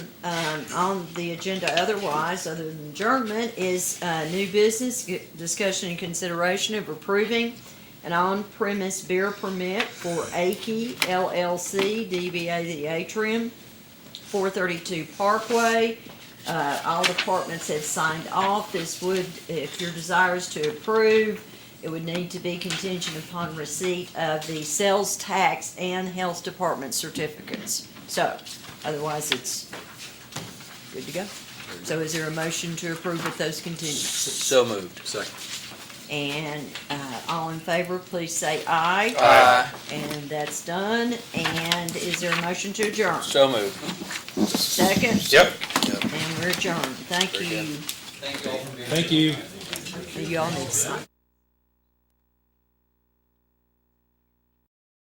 um, on the agenda otherwise, other than adjournment, is uh, new business, g- discussion and consideration of approving an on-premise beer permit for Aki LLC, DBA The Atrium, 432 Parkway. Uh, All departments have signed off. This would, if your desire is to approve, it would need to be contingent upon receipt of the sales tax and health department certificates. So otherwise, it's good to go. So is there a motion to approve with those contingencies? So moved. Second. And uh, all in favor, please say aye. Aye. And that's done. And is there a motion to adjourn? So moved. Second, Yep. and we're adjourned. Thank Very good. you. Thank you. You all need to sign.